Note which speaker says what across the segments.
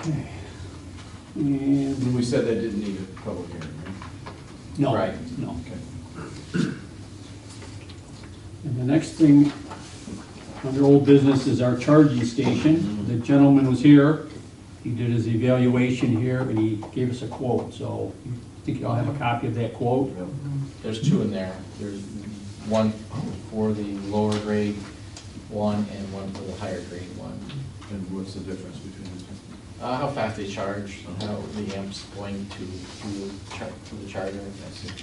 Speaker 1: Okay. And,
Speaker 2: And we said that didn't need a public hearing,
Speaker 1: no,
Speaker 2: Right.
Speaker 1: no.
Speaker 2: right? Okay.
Speaker 1: And the next thing under old business is our charging station. The gentleman was here, he did his evaluation here, and he gave us a quote, so I think y'all have a copy of that quote.
Speaker 2: Yep.
Speaker 3: There's two in there. There's one for the lower grade one and one for the higher grade one.
Speaker 2: And what's the difference between the two?
Speaker 3: Uh, how fast they charge, how the amp's going to, to the char, to the charger, that's it.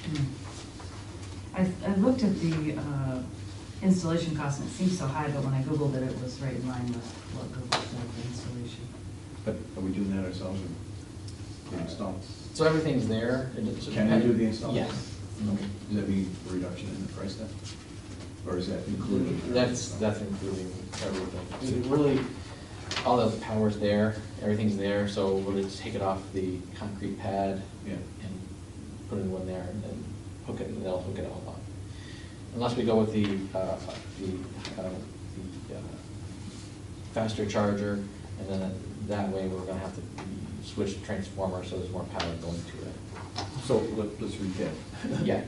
Speaker 4: I, I looked at the uh, installation cost and it seemed so high, but when I Googled it, it was right in line with what Google said for installation.
Speaker 2: But are we doing that ourselves or the install?
Speaker 3: So everything's there. It just-
Speaker 2: Can I do the install?
Speaker 3: Yes.
Speaker 2: Okay. Does that mean a reduction in the price then? Or is that included?
Speaker 3: That's, that's including everything. It Really, all the power's there, everything's there, so we'll just take it off the concrete pad
Speaker 2: Yeah.
Speaker 3: and put it in one there and then hook it, and they'll hook it all up. Unless we go with the, uh, the, uh, the uh, faster charger, and then that way we're gonna have to switch transformer, so there's more power going to
Speaker 2: So let- let's recap.
Speaker 3: it. Yeah,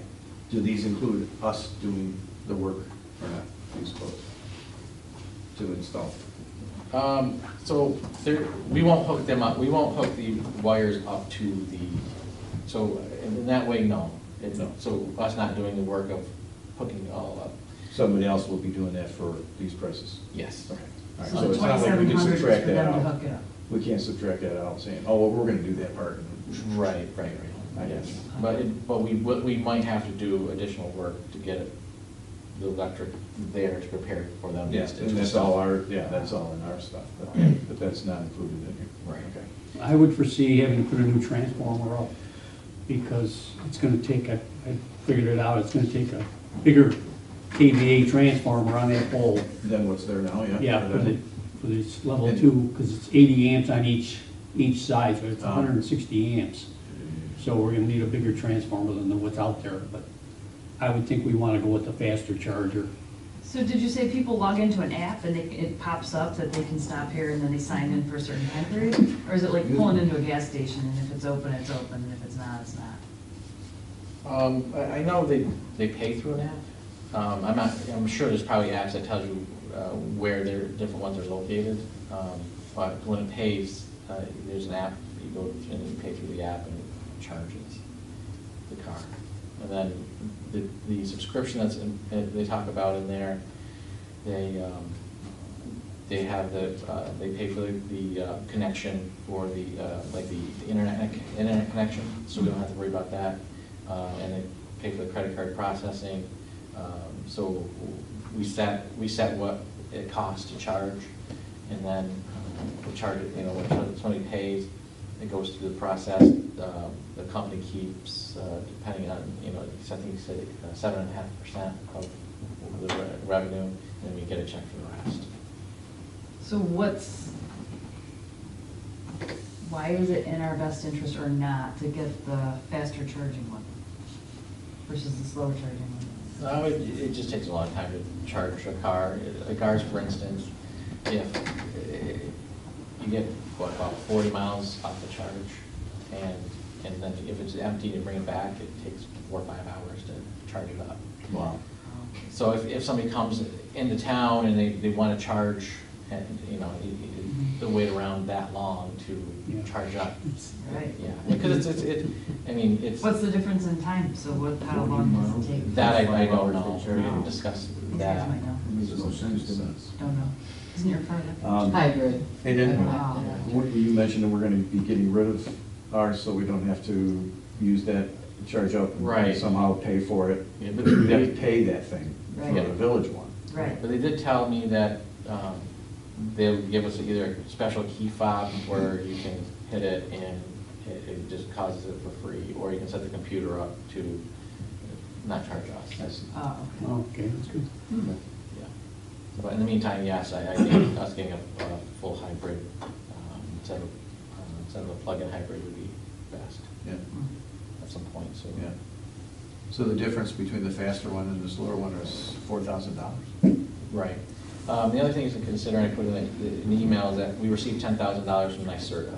Speaker 2: Do these include us doing the work or not, these quotes? To install?
Speaker 3: Um, so there, we won't hook them up, we won't hook the wires up to the, so in that way, no. It's,
Speaker 2: No.
Speaker 3: so us not doing the work of hooking it all up,
Speaker 2: Somebody else will be doing that for these prices?
Speaker 3: yes.
Speaker 2: Okay. All right,
Speaker 4: So the
Speaker 2: it's not like we can
Speaker 4: 2,700 is
Speaker 2: subtract
Speaker 4: for
Speaker 2: that
Speaker 4: them to
Speaker 2: out.
Speaker 4: hook it up.
Speaker 2: We can't subtract that out, saying, oh, well, we're gonna do that part.
Speaker 3: Right, right, right.
Speaker 2: I guess.
Speaker 3: But, it- but we, what we might have to do additional work to get it- the electric there to prepare for them.
Speaker 2: Yes, and that's all our, yeah, that's all in our stuff, but, but that's not included in here.
Speaker 3: Right.
Speaker 2: Okay.
Speaker 1: I would foresee having to put a new transformer up, because it's gonna take a, I figured it out, it's gonna take a bigger KVA transformer on that pole.
Speaker 2: Then what's there now, yeah?
Speaker 1: Yeah, for the, for this level
Speaker 2: And-
Speaker 1: two, because it's eighty amps on each, each side, so it's
Speaker 2: Ah.
Speaker 1: hundred and sixty amps. So we're gonna need a bigger transformer than what's out there, but I would think we wanna go with the faster charger.
Speaker 4: So did you say people log into an app and they, it pops up that they can stop here and then they sign in for a certain time period? Or is it like pulling into a gas station and if it's open, it's open, and if it's not, it's not?
Speaker 3: Um, I, I know they, they pay through an app. Um, I'm not, I'm sure there's probably apps that tell you, uh, where their different ones are located. Um, but when it pays, uh, there's an app, you go and you pay through the app and it charges the car. And then the, the subscription that's, in- that they talk about in there, they, um, they have the, uh, they pay for the, the uh, connection for the, uh, like the internet, internet connection, so we don't have to worry about that. Uh, and they pay for the credit card processing. Um, so we set, we set what it costs to charge and then um, we charge it, you know, when somebody pays, it goes through the process. Um, The company keeps, uh, depending on, you know, I think you said seven and a half percent of the re- revenue, and then we get a check for the rest.
Speaker 4: So what's, why is it in our best interest or not to get the faster charging one versus the slower charging one?
Speaker 3: No, Uh, it, it just takes a long time to charge a car. A car's, for instance, if eh, you get, what, about forty miles off the charge, and, and then if it's empty and bring it back, it takes four, or five hours to charge it up.
Speaker 2: Wow.
Speaker 3: So if, if somebody comes into town and they, they wanna charge, and, you know, you- you- they'll wait around that long
Speaker 1: Yeah.
Speaker 3: to charge up.
Speaker 4: Right.
Speaker 3: Yeah, because it's, it's, it, I mean, it's.
Speaker 4: What's the difference in time? So what, how long does it take?
Speaker 3: That I, I don't
Speaker 2: Five hours
Speaker 3: know,
Speaker 2: to
Speaker 3: we
Speaker 2: charge.
Speaker 3: didn't discuss
Speaker 4: You guys
Speaker 3: that.
Speaker 4: might know.
Speaker 2: Makes no sense to me.
Speaker 4: Don't know. Isn't your part of it?
Speaker 2: Um,
Speaker 5: Hybrid.
Speaker 2: And then,
Speaker 4: Wow.
Speaker 2: what- you mentioned that we're gonna be getting rid of ours, so we don't have to use that, charge up and
Speaker 3: Right.
Speaker 2: somehow pay for it.
Speaker 3: Yeah,
Speaker 2: We
Speaker 3: but
Speaker 2: have to
Speaker 3: they-
Speaker 2: pay that thing for
Speaker 4: Right.
Speaker 2: the village one.
Speaker 4: Right.
Speaker 3: But they did tell me that, um, they'll give us either a special key fob where you can hit it and it, it just causes it for free, or you can set the computer up to not charge us.
Speaker 2: I see.
Speaker 4: Oh, okay. Hmm.
Speaker 1: Okay, that's good.
Speaker 3: Yeah. But in the meantime, yes, I, I think us getting a, a full hybrid, um, instead of, um, instead of a plug-in hybrid would be best
Speaker 2: Yeah,
Speaker 3: at some point, so.
Speaker 2: yeah. So the difference between the faster one and the slower one is four thousand dollars?
Speaker 3: Right. Um, the other thing is to consider, and I put in the, the email, is that we received ten thousand dollars from NYSERDA.